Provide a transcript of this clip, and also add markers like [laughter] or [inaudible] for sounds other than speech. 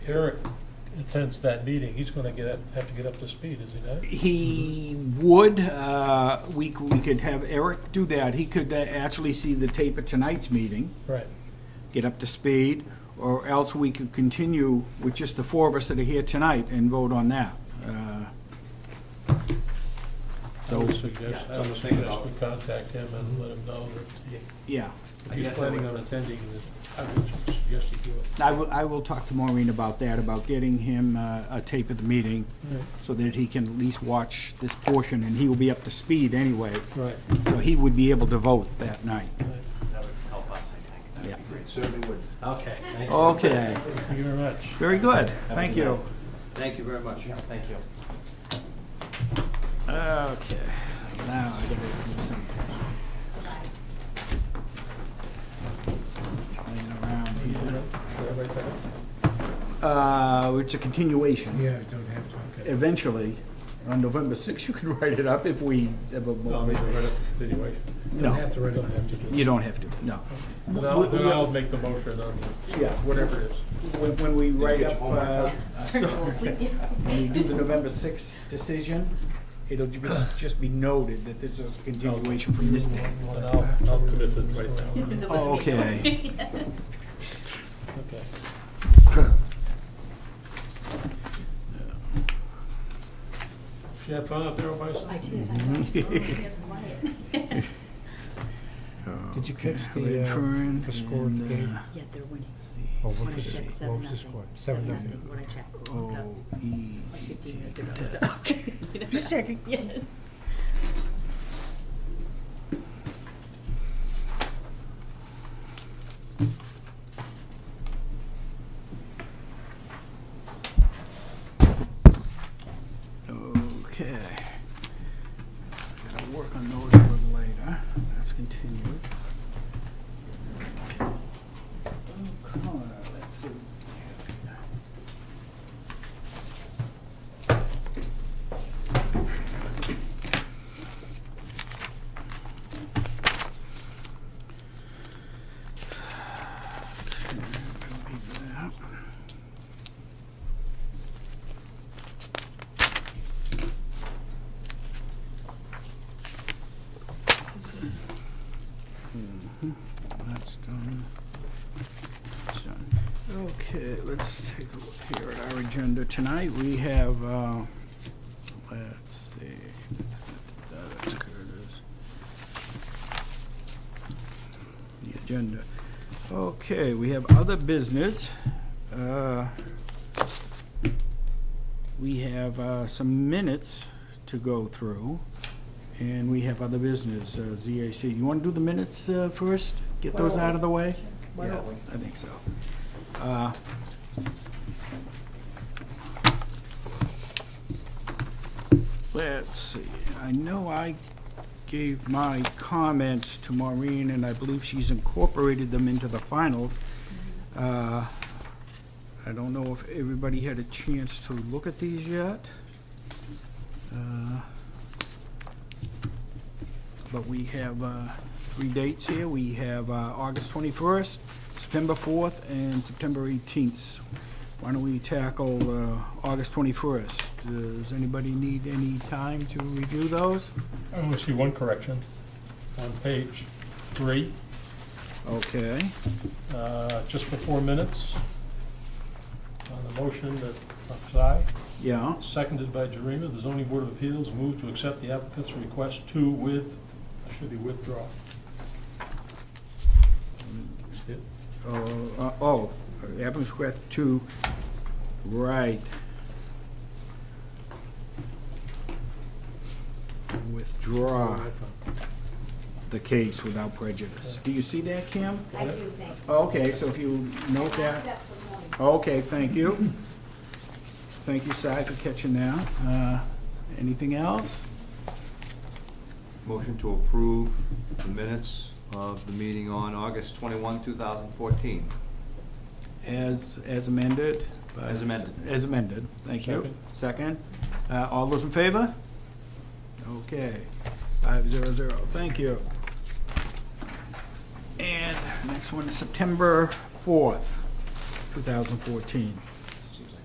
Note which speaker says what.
Speaker 1: Eric attends that meeting, he's gonna get up, have to get up to speed, is he not?
Speaker 2: He would, uh, we, c- we could have Eric do that. He could uh, actually see the tape of tonight's meeting,
Speaker 1: Right.
Speaker 2: get up to speed, or else we could continue with just the four of us that are here tonight and vote on that. Uh,
Speaker 1: I
Speaker 2: So,
Speaker 1: would suggest, I
Speaker 3: Yeah,
Speaker 1: would
Speaker 3: so think
Speaker 1: suggest
Speaker 3: about-
Speaker 1: we contact him and let him know that
Speaker 2: yeah,
Speaker 1: if
Speaker 3: I
Speaker 1: he's
Speaker 3: guess I
Speaker 1: planning
Speaker 3: would-
Speaker 1: on attending, that I would suggest he do it.
Speaker 2: I will, I will talk to Maureen about that, about getting him uh, a tape of the meeting so that he can at least watch this portion, and he will be up to speed anyway,
Speaker 1: Right.
Speaker 2: so he would be able to vote that night.
Speaker 3: That would help us, I think. That would be great.
Speaker 4: Certainly would.
Speaker 3: Okay. thank
Speaker 4: Oh.
Speaker 3: you.
Speaker 2: Okay,
Speaker 1: Thank you very much.
Speaker 2: very good, thank you.
Speaker 4: Thank you very much.
Speaker 3: Thank you.
Speaker 2: Okay, now I gotta do some. Playing around here. Uh, it's a continuation.
Speaker 1: Yeah, don't have to. okay.
Speaker 2: Eventually, on November sixth, you can [laughs] write it up if we have a.
Speaker 1: No, I mean, we're at continuation.
Speaker 2: No,
Speaker 1: to write. Don't have to do
Speaker 2: you don't have to, no.
Speaker 1: it. Then I'll, then I'll make the motion on the-
Speaker 2: Yeah,
Speaker 1: whatever it is.
Speaker 2: when, when we write
Speaker 4: get your
Speaker 2: up,
Speaker 4: homework
Speaker 2: uh,
Speaker 4: done?
Speaker 2: [laughs] so- when we do the November sixth decision, it'll ju- just, just be noted that this is a continuation from this day.
Speaker 1: And I'll, I'll commit it right [laughs] now.
Speaker 2: Okay.
Speaker 5: [laughs]
Speaker 1: Okay. [coughs] Did you have fun out there all by yourself?
Speaker 5: I did, I thought it was always gets quiet.
Speaker 6: Did you catch the, uh,
Speaker 2: Redfern
Speaker 6: the score at the
Speaker 2: and,
Speaker 6: game?
Speaker 2: uh,
Speaker 5: [laughs] Yet they're winning.
Speaker 6: Oh,
Speaker 5: When
Speaker 6: what
Speaker 5: I
Speaker 6: was it?
Speaker 5: checked,
Speaker 6: What
Speaker 5: seven
Speaker 6: was the
Speaker 5: nothing.
Speaker 6: score? Seven nothing.
Speaker 5: When I checked. World Cup,
Speaker 2: Oh, E.
Speaker 5: Like fifteen minutes ago, [laughs] so. Just checking. [laughs] Yes.
Speaker 2: Okay. Gotta work on those a little later. Let's continue. O'Connor, Oh, let's see. That's done. That's done. Okay, let's take a look here at our agenda tonight. We have, uh, let's see, that's Curtis. The agenda. Okay, we have other business. Uh, We have uh, some minutes to go through. And we have other business, uh, ZAC. You want to do the minutes uh, first? Get those out of the way?
Speaker 4: Why
Speaker 2: Yeah,
Speaker 4: don't we?
Speaker 2: I think so. Uh, Let's see, I know I gave my comments to Maureen, and I believe she's incorporated them into the finals.
Speaker 4: Mm-hmm.
Speaker 2: Uh, I don't know if everybody had a chance to look at these yet. Uh, but we have uh, three dates here. We have uh, August 21st, September 4th, and September 18th. Why don't we tackle uh, August 21st? Does anybody need any time to review those?
Speaker 1: I only see one correction on page three,
Speaker 2: Okay,
Speaker 1: uh, just before minutes. On the motion that, of Sy,
Speaker 2: yeah,
Speaker 1: seconded by Jerima, the zoning board of appeals moved to accept the applicant's request to with, it should be withdraw. That's it.
Speaker 2: oh, uh, oh, applicant's request to, right. Withdraw the case without prejudice. Do you see that, Kim?
Speaker 5: I do think.
Speaker 2: Okay, so if you note that, okay, thank you. Thank you, Si, for catching that. Uh, Anything else?
Speaker 4: Motion to approve the minutes of the meeting on August 21, 2014.
Speaker 2: As, as amended? by-
Speaker 4: As amended.
Speaker 2: As amended, thank you. Second. Uh, All those in favor? Okay, five zero zero, thank you. And next one is September fourth, two thousand fourteen.